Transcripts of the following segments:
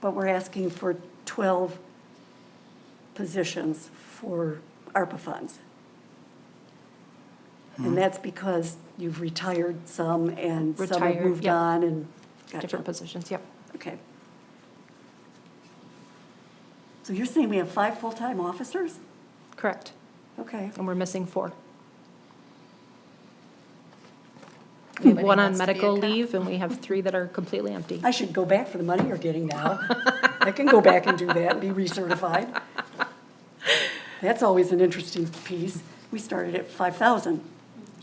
but we're asking for 12 positions for ARPA funds. And that's because you've retired some and some have Retired, moved yep. on and. gotcha. different positions, yep. Okay. So you're saying we have five full-time officers? Correct. Okay. And we're missing four. We have one on medical leave and we have three that are completely empty. I should go back for the money you're getting now. I can go back and do that and be recertified. That's always an interesting piece. We started at five thousand.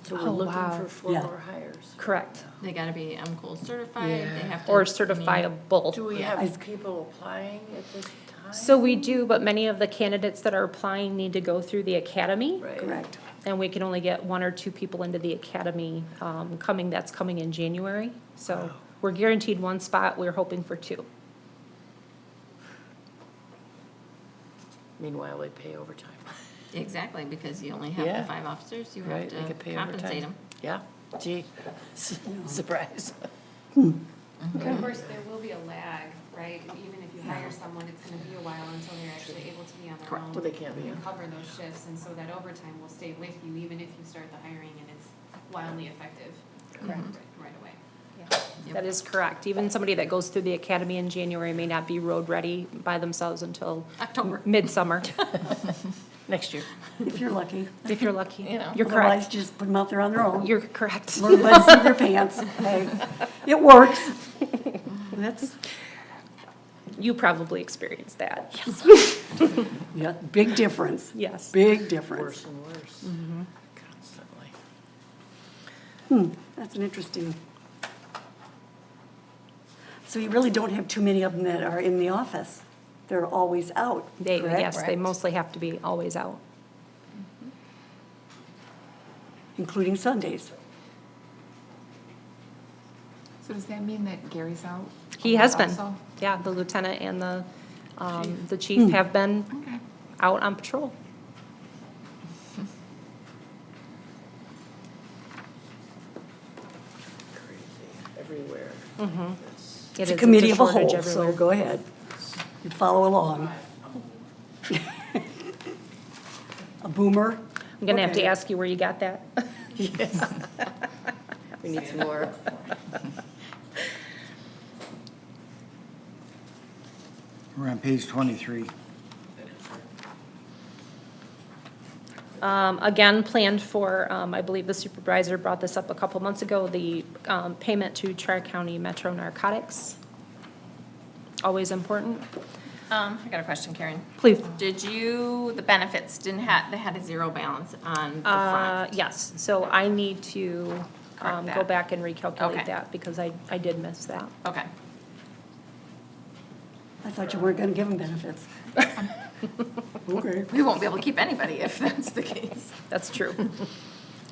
So Oh, we're looking wow. for four Yeah. more hires. Correct. They gotta be MCOL certified, they have to. Or I mean, Do certifiable. we Is- have people applying at this time? So we do, but many of the candidates that are applying need to go through the academy. Right. Correct. And we can only get one or two people into the academy um, coming, that's coming in January. So we're guaranteed one spot, we're hoping for two. Meanwhile, they pay overtime, Exactly, because you only have the Yeah. five officers, you have right? They to could pay compensate overtime. them. Yeah, gee, surprise. But of course, there will be a lag, right? Even if you hire someone, it's gonna be a while until they're actually able to be on their Correct. own. Well, they can't be, And yeah. cover those shifts, and so that overtime will stay with you, even if you start the hiring and it's wildly effective. Correct. Right away. That is correct. Even somebody that goes through the academy in January may not be road-ready by themselves until October. midsummer, Next year. If you're lucky. if you're lucky. You know. You're Otherwise, correct. just put them out there on their own. You're correct. Learn by the seat of their pants. Hey, It works. That's, You probably experienced that. Yes. yeah, big difference. Yes. Big difference. Worse and worse, Mm-hmm. constantly. That's an interesting. So you really don't have too many of them that are in the office. They're always out, They, correct? yes, they mostly have to be always out. Including Sundays. So does that mean that Gary's out? He has been. also? Yeah, the lieutenant and the, um, the chief have been Okay. out on patrol. Crazy, everywhere. Mm-hmm. Yes. It It's is- a it's committee of a shortage whole, so everywhere. go ahead. You follow along. A boomer? I'm gonna have to Okay. ask you where you got that. We need some more. We're on page 23. Um, Again, planned for, um, I believe the supervisor brought this up a couple months ago, the um, payment to Tri-County Metro Narcotics. Always important. Um, I got a question, Karen. Please. Did you, the benefits didn't have, they had a zero balance on the Uh, front? Yes, so I need to um, Correct go that. back and Okay. recalculate that because I I did miss that. Okay. I thought you weren't gonna give them benefits. Okay. We won't be able to keep anybody if that's the case. That's true.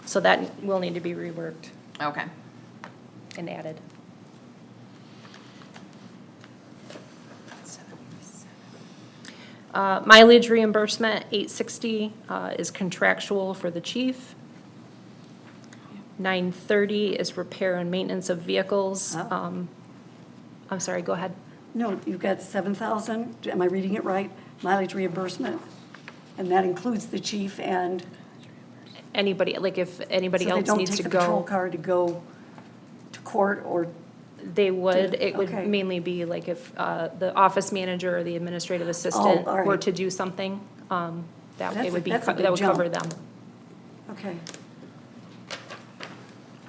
So that will need to be reworked Okay. and added. Uh, Mileage reimbursement, eight sixty uh, is contractual for the chief. Nine thirty is repair and maintenance of vehicles. Oh. Um, I'm sorry, go ahead. No, you've got seven thousand, am I reading it right? Mileage reimbursement, and that includes the chief and. Anybody, like if anybody so they else don't needs take to the Patrol go, car to go to court or, they would, it would Okay. mainly be like if uh, the office manager or the administrative assistant Oh, all were right. to do something, um, that That's it a- would be, that's a co- big that would cover jump. them. okay.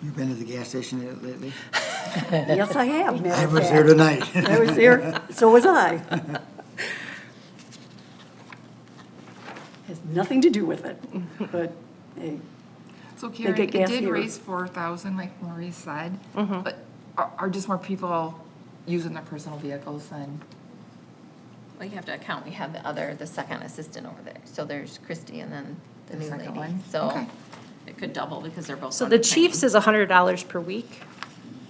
You've been to the gas station lately? Yes, I have, matter I of was fact. there tonight. I was there, so was I. Has nothing to do with it, but, hey, So Karen, get it gas did here. raise four thousand, like Maurice said, but are, are just more people using their personal vehicles than? Well, you have to account, we have the other, the second assistant over there. So there's Christy and then the The new second lady. one? So Okay. it could double because they're both. So on the same. chief's is hundred dollars per week.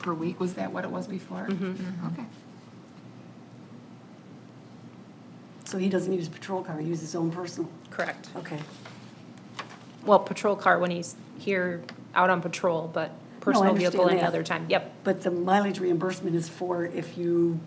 Per week, was that what it was before? Mm-hmm. Okay. so he doesn't use a patrol car, he uses his own personal, Correct. okay. Well, patrol car when he's here out on patrol, but personal vehicle understand any that. other time. Yep, But the mileage reimbursement is for if you